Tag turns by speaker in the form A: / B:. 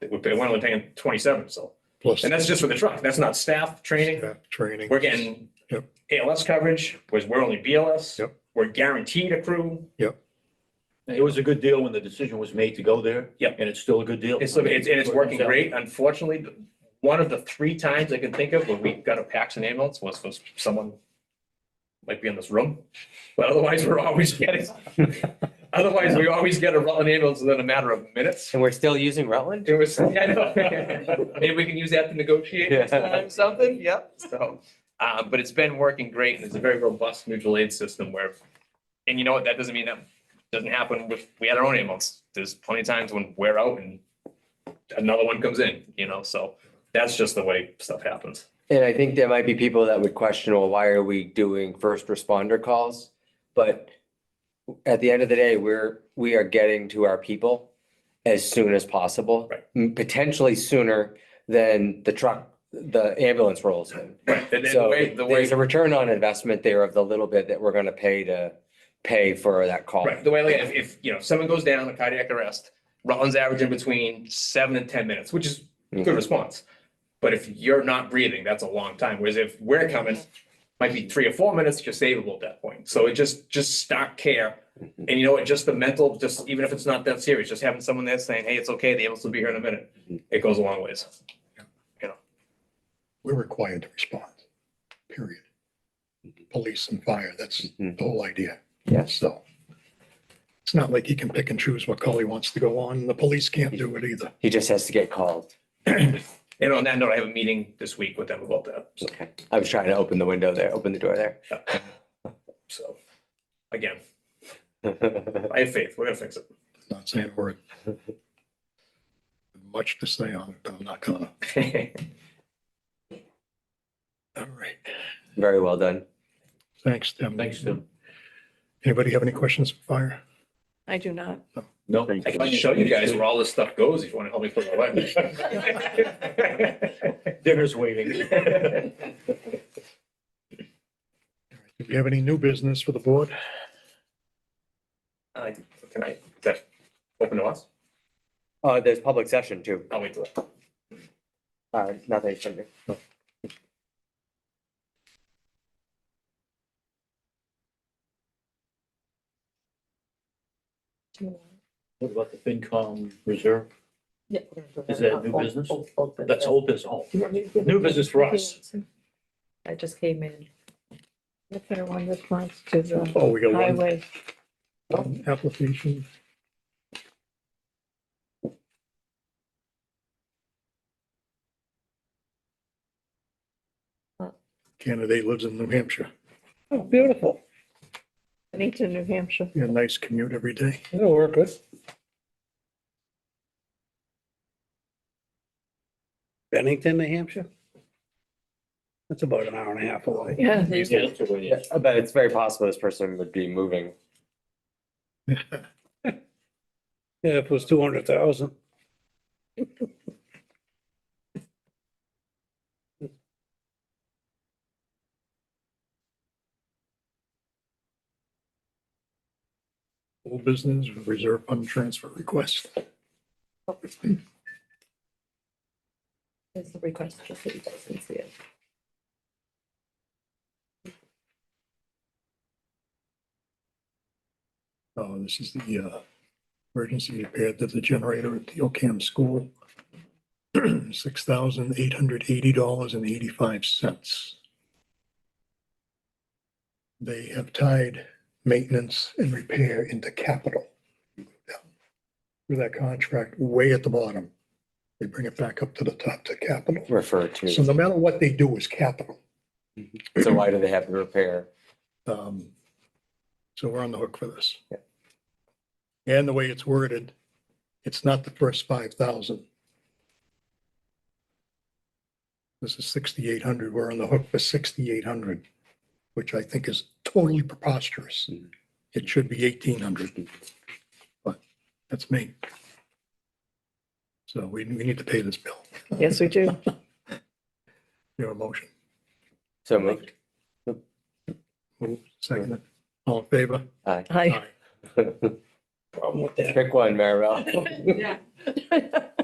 A: It would- We're only paying twenty-seven, so,
B: plus
A: and that's just for the truck. That's not staff training.
B: staff training.
A: We're getting
B: Yep.
A: ALS coverage, was we're only BLS.
B: Yep.
A: We're guaranteed a crew.
C: It was a good deal when the decision was made to go there.
A: Yep.
C: And it's still a good deal.
A: It's, it's, and it's working great. Unfortunately, the- one of the three times I can think of when we got a Paxton ambulance was for someone might be in this room, but otherwise we're always getting, otherwise we always get a Rutland ambulance within a matter of minutes.
D: And we're still using Rutland?
A: It was, I know. maybe we can use that to negotiate next
D: Yeah.
A: time, something, yep, so. Uh, but it's been working great and it's a very robust mutual aid system where, and you know what, that doesn't mean that doesn't happen with, we had our own ambulance. There's plenty of times when we're out and another one comes in, you know, so that's just the way stuff happens.
D: And I think there might be people that would question, well, why are we doing first responder calls? But at the end of the day, we're, we are getting to our people as soon as possible.
A: Right.
D: m- Potentially sooner than the truck, the ambulance rolls in.
A: Right, and then the
D: So
A: way, the way.
D: there's a return on investment there of the little bit that we're gonna pay to pay for that call.
A: Right, the way, like, if, if, you know, someone goes down, a cardiac arrest, Rutland's averaging between seven and ten minutes, which is a good
D: Mhm.
A: response. But if you're not breathing, that's a long time, whereas if we're coming, might be three or four minutes, you're savable at that point, so it just, just start care. And you know what, just the mental, just, even if it's not that serious, just having someone there saying, hey, it's okay, the ambulance will be here in a minute, it goes a long ways.
B: We're required to respond, period. Police and fire, that's
C: Mm-hmm.
B: the
D: Mhm.
B: whole idea.
D: Yes.
B: So it's not like he can pick and choose what call he wants to go on. The police can't do it either.
D: He just has to get called.
A: And on that note, I have a meeting this week with them about that, so-
D: Okay. I was trying to open the window there, open the door there.
A: so, again, I have faith, we're gonna fix it.
B: Not saying a word. Much to say on it, but I'm not gonna. All right.
D: Very well done.
B: Thanks, Tim.
C: Thanks, Tim.
B: Anybody have any questions for fire?
E: I do not.
C: No.
A: I can show you guys where all this stuff goes if you want to help me put it away.
C: Dinner's waiting.
B: Do you have any new business for the board?
A: Uh, Can I, is that open to us?
D: Uh, there's public session too.
A: I'll wait till.
D: Uh, nothing from me.
C: What about the FinCom reserve?
E: Yeah.
C: Is that new business? That's old business. Oh, New business for us.
E: I just came in. The fair one response to the
B: Oh, we got one
E: highway.
B: one um, application. Candidate lives in New Hampshire.
E: Oh, beautiful. Bennington, New Hampshire.
B: Yeah, nice commute every day.
F: It'll work good. Bennington, New Hampshire? That's about an hour and a half away.
E: Yeah.
C: Yeah, that's the way it is.
D: Yeah, But it's very possible this person would be moving.
F: Yeah, if it was two hundred thousand.
B: Old business, reserve fund transfer request.
E: Is the request, just so you guys can see it.
B: Oh, this is the uh, emergency repair to the generator at the Ocam school. Six thousand eight hundred eighty dollars and eighty-five cents. They have tied maintenance and repair into capital. With that contract way at the bottom, they bring it back up to the top to capital.
D: Referred
B: So
D: to.
B: no matter what they do is capital.
D: So why do they have to repair?
B: Um, So we're on the hook for this.
D: Yeah.
B: And the way it's worded, it's not the first five thousand. This is sixty-eight hundred. We're on the hook for sixty-eight hundred, which I think is totally preposterous.
D: Mhm.
B: It should be eighteen hundred. But that's me. So we, we need to pay this bill.
E: Yes, we do.
B: Your motion.
D: So moved.
B: Move, Second. it. All in favor?
D: Aye.
E: Hi.
D: Pick one, Maribel.
E: Yeah.